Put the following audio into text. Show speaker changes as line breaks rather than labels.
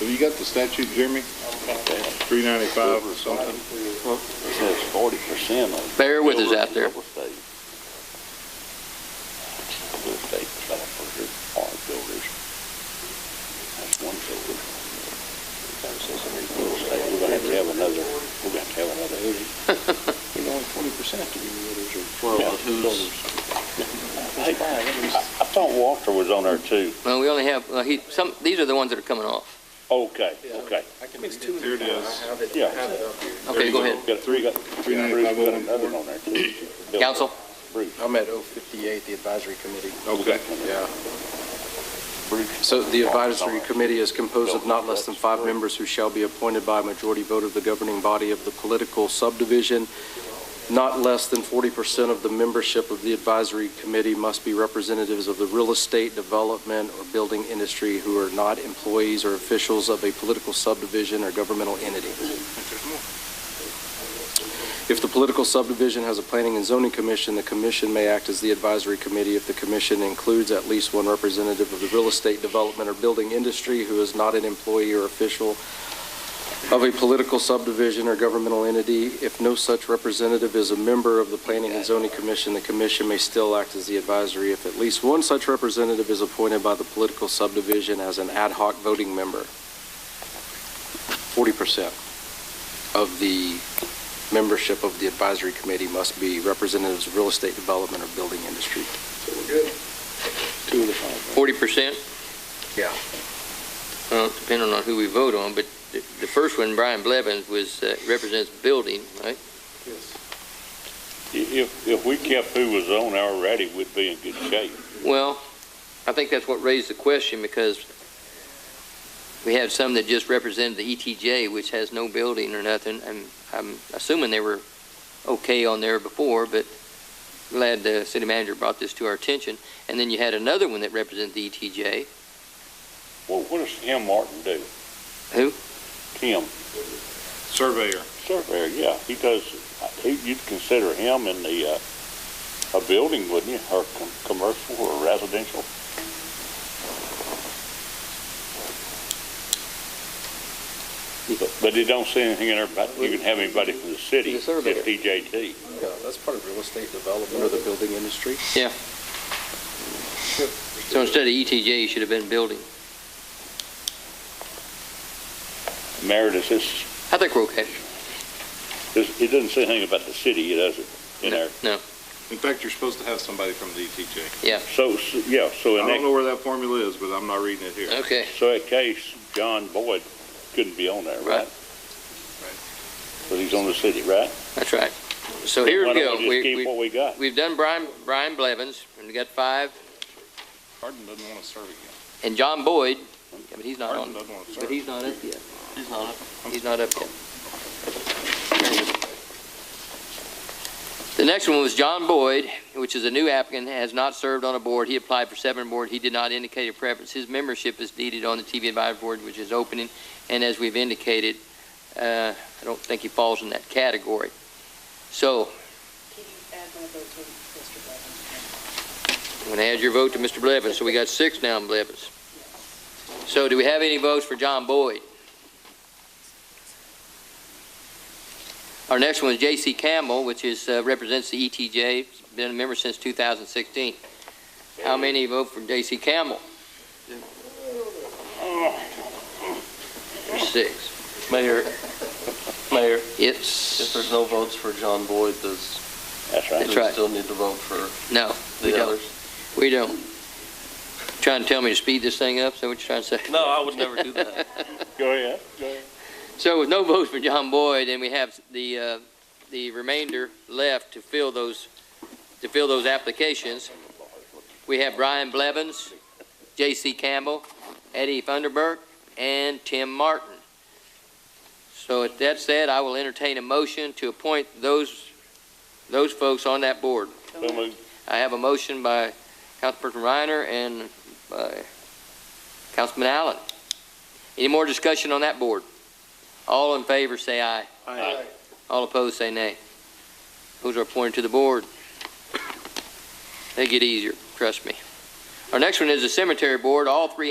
you got the statute, Jeremy? Three ninety-five or something?
It says forty percent of.
Bear with us out there.
Real estate. Real estate is all for your farm builders. That's one builder. That says every real estate, we're gonna have to have another, we're gonna have to have another eighty. You know, forty percent of your builders are.
Well, but who's-
Hey, I I thought Walter was on there too.
Well, we only have, uh, he, some, these are the ones that are coming off.
Okay, okay.
It's two.
Here it is.
Yeah.
Okay, go ahead.
Got, we got,
Three
Bruce got
ninety-five oh one
another
four.
on there too.
Council,
Bruce,
I'm at 058, the advisory committee.
Okay.
Yeah.
Bruce.
So the advisory committee is composed of not less than five members who shall be appointed by a majority vote of the governing body of the political subdivision. Not less than 40% of the membership of the advisory committee must be representatives of the real estate, development, or building industry who are not employees or officials of a political subdivision or governmental entity. If the political subdivision has a planning and zoning commission, the commission may act as the advisory committee if the commission includes at least one representative of the real estate development or building industry who is not an employee or official of a political subdivision or governmental entity. If no such representative is a member of the planning and zoning commission, the commission may still act as the advisory if at least one such representative is appointed by the political subdivision as an ad hoc voting member. 40% of the membership of the advisory committee must be representatives of real estate development or building industry.
Two of the five.
forty percent,
Yeah.
well, depending on who we vote on, but the, the first one, Brian Blevins, was, uh, represents building, right?
If, if we kept who was on there already, we'd be in good shape.
Well, I think that's what raised the question because we had some that just represented the ETJ, which has no building or nothing, and I'm assuming they were okay on there before, but glad the city manager brought this to our attention. And then you had another one that represented the E ETJ.
Well, what does Tim Martin do?
Who?
Tim,
Surveyor.
surveyor, yeah, he does, he, you'd consider him in the, uh, a building, wouldn't you, or com- commercial or residential? But- But it don't say anything in there about, you can have anybody from the city,
He's
just
a surveyor.
DJT.
Yeah, that's part of real estate development or the building industry.
So instead of ETJ, you should have been building.
Meredith, this,
I think we're okay.
this, it doesn't say anything about the city, it doesn't, in there.
No,
In fact, you're supposed to have somebody from the ETJ.
So, so- yeah, so in
I
that
don't know where that formula is, but I'm not reading it here.
okay.
So that case, John Boyd couldn't be on there, right?
Right.
But he's on the city, right?
That's right. So here we
Why don't
go.
Just
We,
keep
we,
what we got.
we've done Brian, Brian Blevins, and we got five,
Hardin doesn't want to serve again.
and John Boyd, Yeah, but he's not
Hardin
on,
doesn't want to
but
serve.
he's not up yet.
He's not up.
He's not up yet. The next one was John Boyd, which is a new applicant, has not served on a board. He applied for seven board. He did not indicate a preference. His membership is needed on the TV advisory board, which is opening. And as we've indicated, uh, I don't think he falls in that category. So
Can you add my vote to Mr. Blevins?
I'm going to add your vote to Mr. Blevins. So we got six now on Blevins. So do we have any votes for John Boyd? Our next one is J.C. Campbell, which is, uh, represents the ETJ, He's been a member since 2016. How many vote for J.C. Campbell? Six.
Mayor, Mayor, if
It's,
there's no votes for John Boyd, does,
That's
do
right.
That's
we
right.
still need to vote for
no, we
the
don't.
others?
We don't. Trying to tell me to speed this thing up, is that what you're trying to say?
No, I would never do that.
Go ahead, go ahead.
So with no votes for John Boyd, and we have the, uh, the remainder left to fill those, to fill those applications, we have Brian Blevins, J.C. Campbell, Eddie Funderburk, and Tim Martin. So with that said, I will entertain a motion to appoint those, those folks on that board.
So moved.
I have a motion by Councilperson Reiner and by Councilman Allen. Any more discussion on that board? All in favor, say aye.
Aye.
All opposed, say nay. Those are appointed to the board. They get easier, trust me. Our next one is the cemetery board. All three